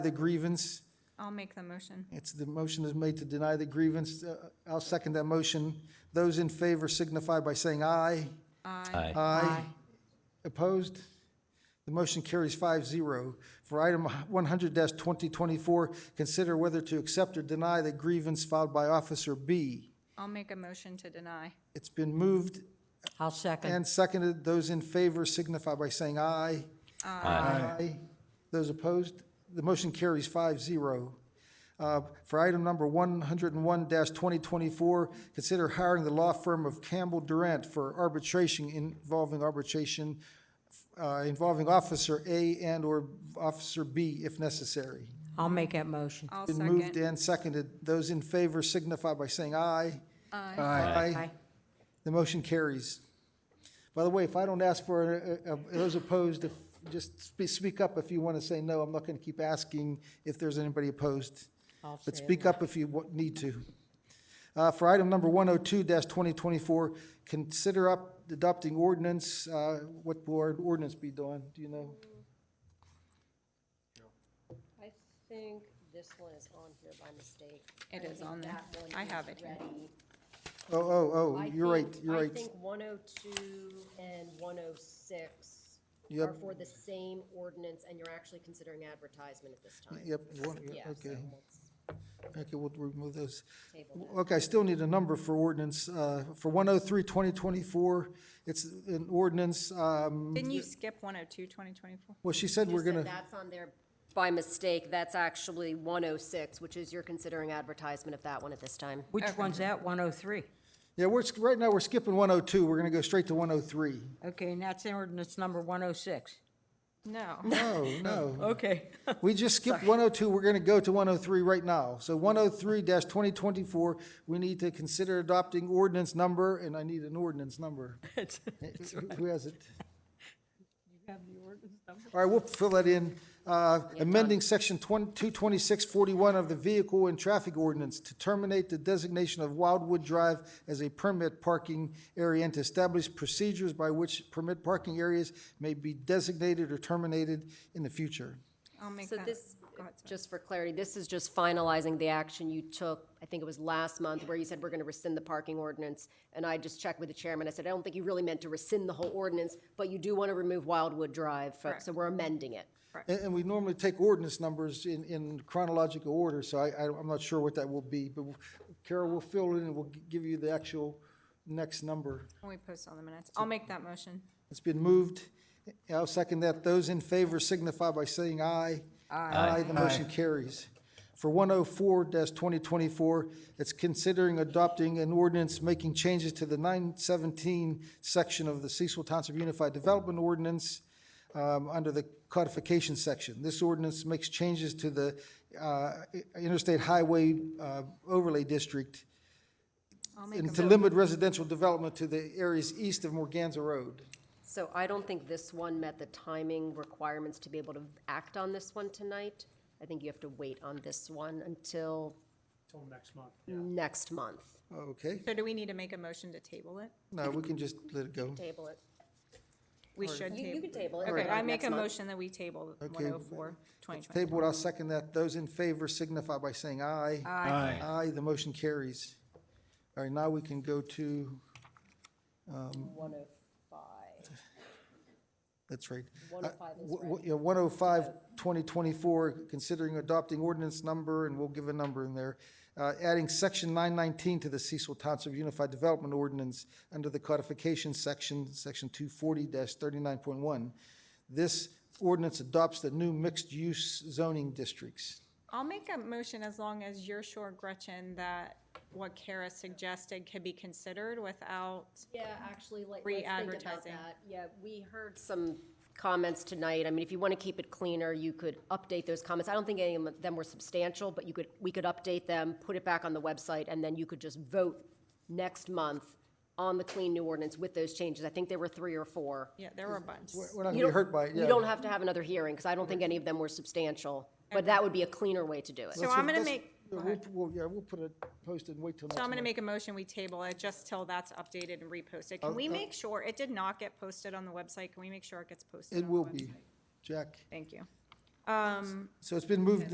the grievance. I'll make the motion. It's, the motion is made to deny the grievance. Uh, I'll second that motion. Those in favor signify by saying aye. Aye. Aye. Opposed? The motion carries 5-0. For item one hundred twenty twenty-four, consider whether to accept or deny the grievance filed by Officer B. I'll make a motion to deny. It's been moved I'll second. and seconded. Those in favor signify by saying aye. Aye. Those opposed? The motion carries 5-0. Uh, For item number one hundred and one twenty twenty-four, consider hiring the law firm of Campbell Durant for arbitration involving arbitration uh, involving Officer A and/or Officer B if necessary. I'll make that motion. I'll Been moved second. and seconded. Those in favor signify by saying aye. Aye. Aye. Aye. The motion carries. By the way, if I don't ask for, uh, uh, those opposed, if, just spe- speak up if you want to say no. I'm not going to keep asking if there's anybody opposed. I'll But say it. speak up if you wa- need to. Uh, For item number 102-2024, consider up adopting ordinance, uh, what board ordinance be doing, do you know? I think this one is on here by mistake. It I is think on there. that one I is have it here. ready. Oh, oh, I oh, you're right, think- you're I right. think one oh two and one oh six Yep. are for the same ordinance, and you're actually considering advertisement at this time. Yep, you want- yeah, Yeah, so okay, let's okay, we'll remove those. table that. Okay, I still need a number for ordinance, uh, for 103, 2024, it's an ordinance, um, Didn't you skip 102, 2024? well, she said You we're said gonna, That's on there by mistake, that's actually one oh six, which is you're considering advertisement of that one at this time. Which one's that? 103? yeah, we're, sk- right now, we're skipping 102, we're gonna go straight to 103. Okay, and that's ordinance number 106. No. No, Oh, no, Okay. we just skipped 102, we're gonna go to 103 right now. So 103 2024, we need to consider adopting ordinance number, and I need an ordinance number. Who has it? All right, we'll fill that in. Uh, Amending Section 22641 of the Vehicle and Traffic Ordinance to terminate the designation of Wildwood Drive as a permit parking area and to establish procedures by which permit parking areas may be designated or terminated in the future. I'll make So that. this, Go ahead, sorry. just for clarity, this is just finalizing the action you took, I think it was last month, where you said we're going to rescind the parking ordinance. And I just checked with the chairman. I said, I don't think you really meant to rescind the whole ordinance, but you do want to remove Wildwood Drive. fro- So we're amending it. And, and we normally take ordinance numbers in, in chronological order, so I, I, I'm not sure what that will be. But Carol will fill in and we'll g- give you the actual next number. Can we post on the minutes? I'll make that motion. It's been moved. I'll second that. Those in favor signify by saying aye. Aye. The motion carries. For 104-2024, it's considering adopting an ordinance making changes to the 917 section of the Cecil Township Unified Development Ordinance um, under the codification section. This ordinance makes changes to the uh, Interstate Highway uh, Overlay District I'll make and a to mo- limit residential development to the areas east of Morganza Road. So I don't think this one met the timing requirements to be able to act on this one tonight. I think you have to wait on this one until Till next month, yeah. next month. Okay. So do we need to make a motion to table it? No, we can just let it go. Table it. We should You you table. can table it. Okay, I make a Next month. motion that we table 104, 2024. Table it, I'll second that. Those in favor signify by saying aye. Aye. Aye, the motion carries. All right, now we can go to, um, One oh five. that's right. 105 is Uh, wh- wh- Yeah, 105, 2024, considering adopting ordinance number, and we'll give a number in there, uh, adding section 919 to the Cecil Township Unified Development Ordinance under the codification section, section 240-39.1. This ordinance adopts the new mixed-use zoning districts. I'll make a motion as long as you're sure, Gretchen, that what Kara suggested could be considered without, Yeah, actually, like, let's think about Re-advertising. that. Yeah, we heard some comments tonight. I mean, if you want to keep it cleaner, you could update those comments. I don't think any of them were substantial, but you could, we could update them, put it back on the website, and then you could just vote next month on the clean new ordinance with those changes. I think there were three or four. yeah, there were a bunch. We're not You gonna be don't- hurt by it, yeah. You don't have to have another hearing, because I don't think any of them were substantial, but that would be a cleaner way to do it. So I'm gonna let's- make- yeah, go We'll, ahead. we'll- yeah, we'll put it posted and wait till next So I'm month. gonna make a motion, we table it just till that's updated and reposted. Can we make sure, it did not get posted on the website, can we make sure it gets posted? It on the will website? be, Jack. Thank you. So it's been moved